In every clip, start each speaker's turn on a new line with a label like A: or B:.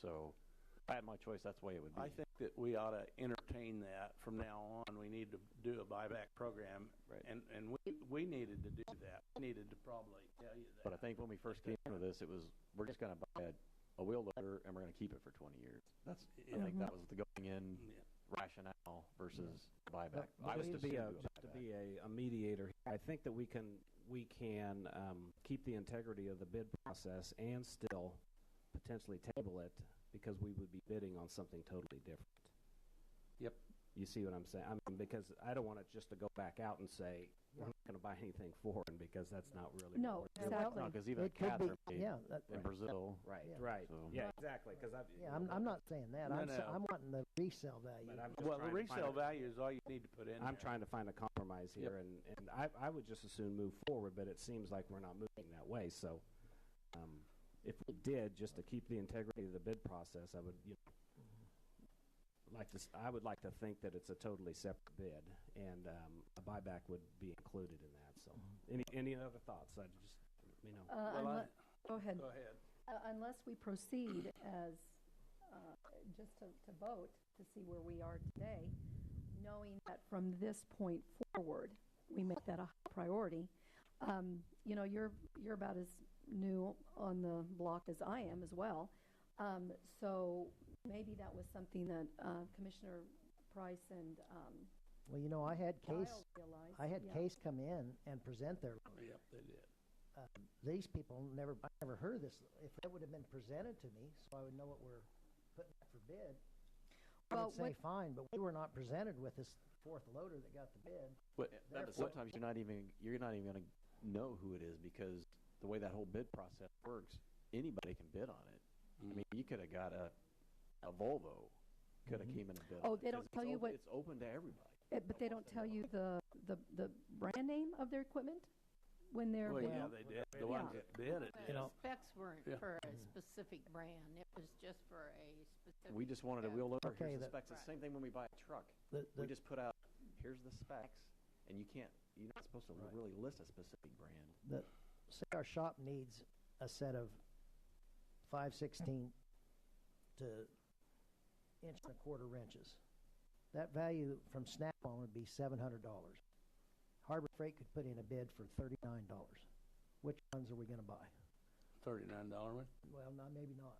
A: So if I had my choice, that's the way it would be.
B: I think that we ought to entertain that from now on. We need to do a buyback program.
A: Right.
B: And, and we, we needed to do that. We needed to probably tell you that.
A: But I think when we first came into this, it was, we're just gonna buy a, a wheel loader and we're gonna keep it for twenty years. That's, I think
C: Mm-hmm.
A: that was the going in
B: Yeah.
A: rationale versus buyback.
C: But-
A: I
C: but Just to
A: would
C: be a,
A: assume do
C: just to
A: buyback.
C: be a, a mediator, I think that we can, we can, um, keep the integrity of the bid process and still potentially table it because we would be bidding on something totally different.
B: Yep.
C: You see what I'm saying? I mean, because I don't want it just to go back out and say, we're not going to buy anything foreign because that's not really. what
D: No,
C: we're doing.
D: exactly.
A: No, because even
D: It could
A: cats
D: be-
A: are made
D: Yeah, that-
A: In Brazil,
C: Right,
D: Yeah.
C: right.
A: So-
C: Yeah, exactly, because I've.
D: yeah, I'm, I'm not saying that.
B: No,
D: I'm, sa-
B: no.
D: I'm wanting the resale value.
C: But I'm just
B: Well, the
C: trying to find
B: resale
C: a-
B: value is all you need to put in
C: I'm
B: there.
C: trying to find a compromise here, and, and I, I would just as soon move forward, but it seems like we're not moving that way. So, um, if we did, just to keep the integrity of the bid process, I would, you know, like to, s- I would like to think that it's a totally separate bid, and um, a buyback would be included in that. So, any any other thoughts? I just, you know,
B: Well,
E: Uh,
B: I-
E: unle- Go ahead.
B: Go
E: Uh,
B: ahead.
E: Unless we proceed as, uh, just to to vote, to see where we are today, knowing that from this point forward, we make that a high priority. Um, You know, you're, you're about as new on the block as I am as well. Um, So maybe that was something that uh, Commissioner Price and um,
D: well, you know, I had
E: Dial
D: case,
E: realized.
D: I had
E: yeah.
D: case come in and present their.
B: Yep, they did.
D: These people never, I never heard of this. If that would have been presented to me, so I would know what we're putting out for bid. I
E: Well,
D: would say
E: what-
D: fine, but we were not presented with this fourth loader that got the bid.
B: But
D: Therefore-
A: sometimes you're not even, you're not even gonna know who it is because the way that whole bid process works, anybody can bid on it. I mean, you could have got a, a Volvo, could have came in and bid.
E: Oh,
A: on it,
E: they don't
A: 'cause it's
E: tell you
A: open-
E: what-
A: It's open to everybody.
E: Eh, But they don't tell you the, the the brand name of their equipment when they're
B: Well,
E: bidding?
B: yeah, they did. The ones
E: Yeah.
B: that bid it.
F: But
B: did.
F: the specs weren't
B: Yeah.
F: for a specific brand, it was just for a specific.
A: We just wanted a wheel loader,
D: Okay,
A: here's the
D: that-
A: specs, it's the same thing when we buy a truck.
D: The-
A: We
D: the-
A: just put out, here's the specs, and you can't, you're not supposed to really list a specific brand.
D: The, say our shop needs a set of five sixteen to inch and a quarter wrenches. That value from Snap-on would be seven hundred dollars. Harbor Freight could put in a bid for thirty-nine dollars. Which ones are we gonna buy?
B: Thirty-nine dollar one?
D: Well, no, maybe not.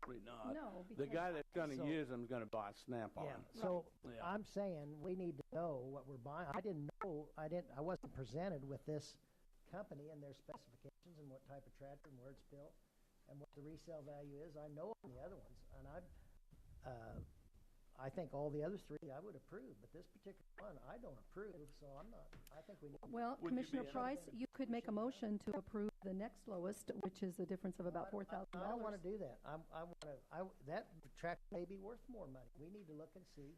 B: Probably not.
E: No,
B: The guy
E: because-
B: that's gonna
D: So-
B: use them's gonna buy a Snap-on.
D: So
B: Right. Yeah.
D: I'm saying we need to know what we're buying. I didn't know, I didn't, I wasn't presented with this company and their specifications and what type of tractor and where it's built and what the resale value is. I know on the other ones and I, uh, I think all the other three I would approve, but this particular one I don't approve, so I'm not, I think we need.
E: Well,
B: you
E: Commissioner
B: be in-
E: Price, you could make a motion to approve the next lowest, which is a difference of about four thousand
D: I don't want
E: dollars.
D: to do that. I'm, I want to, I, that tractor may be worth more money. We need to look and see.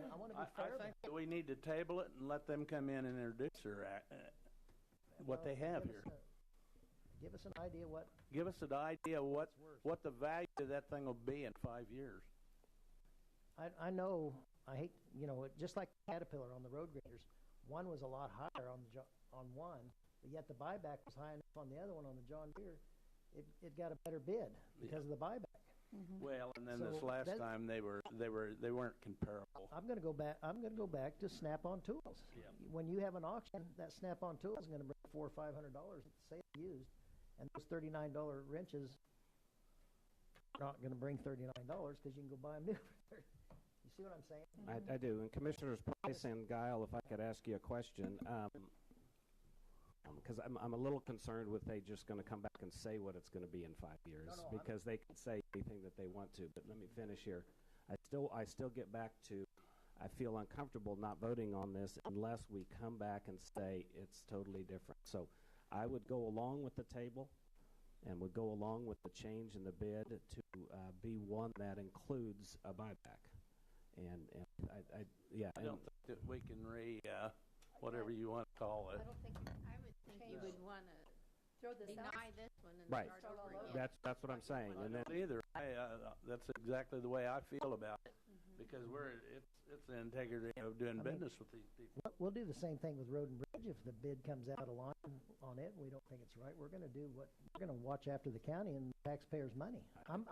D: And I want to
B: I,
D: be fair
B: I
D: about
B: think that we need to table it and let them come in and introduce their, act- uh, what they have
D: Uh, Give
B: here.
D: us a- Give us an idea what,
B: Give us an idea what,
D: It's worth.
B: what the value of that thing will be in five years.
D: I, I know, I hate, you know, it- just like Caterpillar on the road graders, one was a lot higher on the, Jo- on one, but yet the buyback was high enough on the other one, on the John Deere, it, it got a better bid because of the buyback.
B: Well, and then this
D: So
B: last
D: that-
B: time, they were, they were, they weren't comparable.
D: I'm gonna go back, I'm gonna go back to Snap-on Tools.
B: Yeah.
D: When you have an auction, that Snap-on Tool is gonna bring four or five hundred dollars, say it's used, and those thirty-nine dollar wrenches are not gonna bring thirty-nine dollars, because you can go buy them new. You see what I'm saying?
C: I, I do. And Commissioners Price and Guile, if I could ask you a question, um, because Um, I'm, I'm a little concerned with they just going to come back and say what it's going to be in five years
D: no, I'm-
C: because they can say anything that they want to. But let me finish here. I still, I still get back to, I feel uncomfortable not voting on this unless we come back and say it's totally different. So I would go along with the table and would go along with the change in the bid to uh, be one that includes a buyback. And, and I, I, yeah.
B: I
C: and-
B: don't think that we can re, uh, whatever you want to call
F: I
B: it.
F: don't think, I would think you would want to
E: Throw this
F: deny this one and
C: Right.
F: start over again.
C: That's, that's what I'm saying.
B: I
C: And then,
B: don't either. I, uh, that's exactly the way I feel about it, because we're, it's, it's the integrity of doing
D: I mean-
B: business with these people.
D: We'll- We'll do the same thing with Road and Bridge. If the bid comes out of line on it, and we don't think it's right, we're gonna do what, we're gonna watch after the county and taxpayers' money. I'm,